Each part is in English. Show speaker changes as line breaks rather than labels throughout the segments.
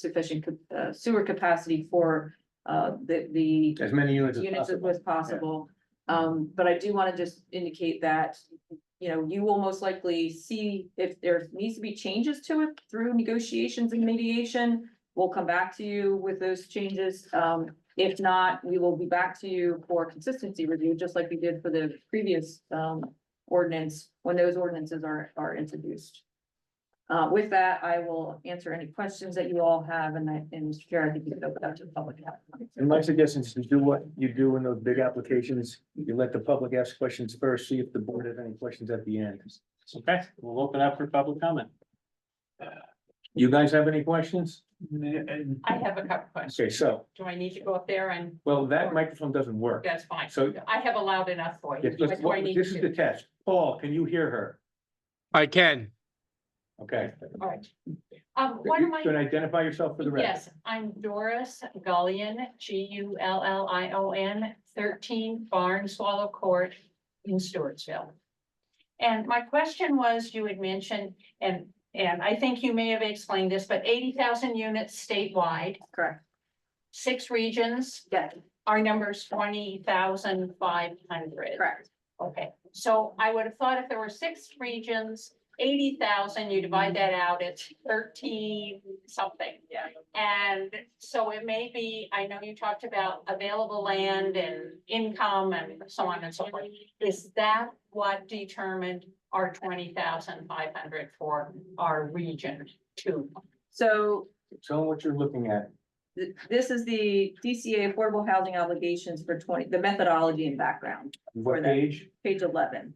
sufficient ca- uh, sewer capacity for uh, the, the
as many units as
units
possible.
as possible. Um, but I do wanna just indicate that, you know, you will most likely see if there needs to be changes to it through negotiations and mediation. We'll come back to you with those changes. Um, if not, we will be back to you for consistency review, just like we did for the previous, um, ordinance, when those ordinances are, are introduced. Uh, with that, I will answer any questions that you all have, and I, and Mr. Chair, I think you can open up to the public.
And my suggestion is to do what you do in those big applications, you let the public ask questions first, see if the board has any questions at the end.
Okay, we'll open up for public comment.
You guys have any questions?
I have a couple questions.
Okay, so,
Do I need to go up there and
well, that microphone doesn't work.
that's fine.
So,
I have a loud enough voice.
if-
What do I need
this is the
to?
test. Paul, can you hear her?
I can.
Okay.
All right. Um, one of
You
my,
can identify yourself for the record.
yes, I'm Doris Gullion, G U L L I O N, thirteen Barn Swallow Court in Stewartsville. And my question was, you had mentioned, and, and I think you may have explained this, but eighty thousand units statewide,
Correct,
six regions,
yeah,
our number's twenty thousand five hundred.
correct.
Okay, so I would have thought if there were six regions, eighty thousand, you divide that out, it's thirteen something.
Yeah.
And so it may be, I know you talked about available land and income and so on and so forth. Is that what determined our twenty thousand five hundred for our region two?
So
Tell them what you're looking at.
th- this is the DCA affordable housing obligations for twenty, the methodology and background,
What
For that.
page?
page eleven.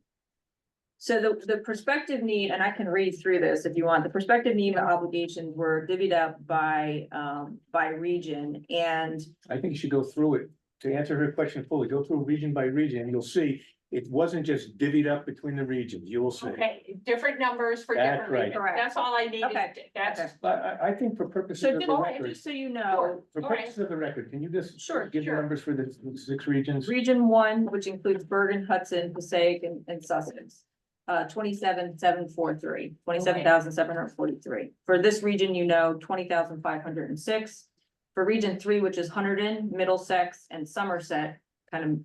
So the, the prospective need, and I can read through this if you want, the prospective need and obligations were divvied up by, um, by region and
I think you should go through it. To answer her question fully, go through region by region, and you'll see it wasn't just divvied up between the regions. You will see.
Okay, different numbers for
That's
different
right.
regions.
Correct.
That's all I needed.
Okay.
That's,
But I, I think for purposes
so
of the
just,
record,
just so you
Sure.
know,
for
All right.
purposes of the record, can you just
Sure,
give the
sure.
numbers for the six regions?
region one, which includes Bergen, Hudson, Passaic and, and Sussex. Uh, twenty-seven, seven, four, three, twenty-seven thousand, seven hundred forty-three. For this region, you know, twenty thousand, five hundred and six. For region three, which is Hunterdon, Middlesex and Somerset, kind of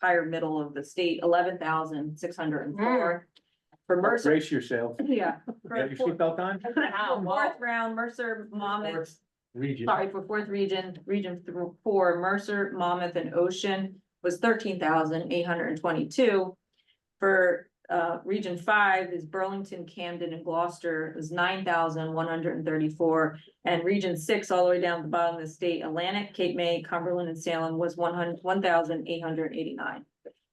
higher middle of the state, eleven thousand, six hundred and four.
Mm.
For Mercer,
Brace yourself.
yeah. for
Have your
fourth-
seatbelt on?
for
wow, wow.
Fourth round, Mercer, Monmouth,
Region.
sorry, for fourth region, region th- four, Mercer, Monmouth and Ocean was thirteen thousand eight hundred and twenty-two. For uh, region five is Burlington, Camden and Gloucester is nine thousand one hundred and thirty-four. And region six, all the way down to the bottom of the state, Atlantic, Cape May, Cumberland and Salem was one hundred, one thousand eight hundred and eighty-nine.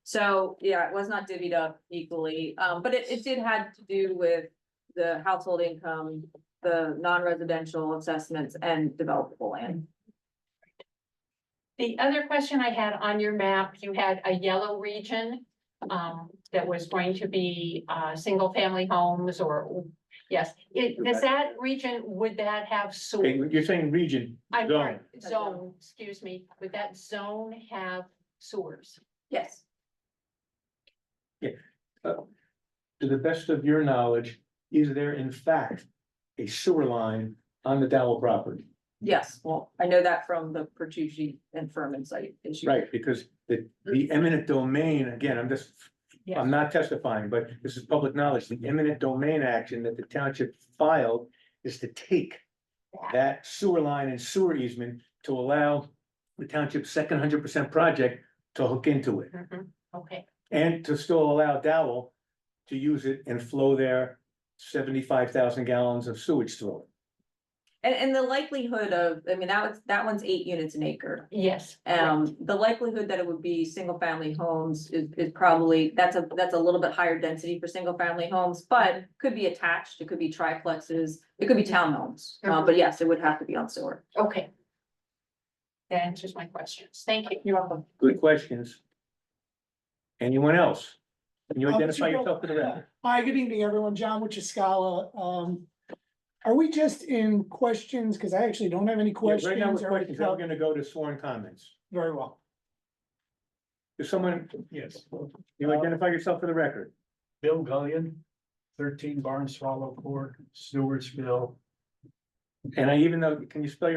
So, yeah, it was not divvied up equally, um, but it, it did had to do with the household income, the non-residential assessments and developable land.
The other question I had on your map, you had a yellow region um, that was going to be uh single family homes or yes, it does that region, would that have
Okay,
sewer?
you're saying region,
I'm sorry,
zone.
zone, excuse me, would that zone have sewers?
Yes.
To the best of your knowledge, is there in fact a sewer line on the Dowell property?
Yes, well, I know that from the Pertucci and Furman site issue.
Right, because the, the eminent domain, again, I'm just, I'm not testifying, but this is public knowledge. The eminent domain action that the township filed is to take that sewer line and sewer easement to allow the township's second hundred percent project to hook into it.
Mhm, Okay,
And to still allow Dowell to use it and flow their seventy-five thousand gallons of sewage through it.
And, and the likelihood of, I mean, that was, that one's eight units an acre.
yes.
Um, the likelihood that it would be single family homes is, is probably, that's a, that's a little bit higher density for single family homes, but could be attached, it could be triplexes, it could be townhomes. Uh, but yes, it would have to be on sewer.
correct. Okay. That answers my questions. Thank you.
You're welcome.
Good questions. Anyone else? Can you
Uh, Mr.
identify
Bill.
yourself for the record?
Hi, good evening, everyone. John Wuchaskala. Um, are we just in questions? Because I actually don't have any
Yeah, Right now,
questions.
with
Are we
questions, then we're
co-
gonna go to sworn comments.
Very well.
If someone,
Yes,
you identify yourself for the record.
Bill Gullion, thirteen Barn Swallow Court, Stewartsville,
And I even though, can you spell your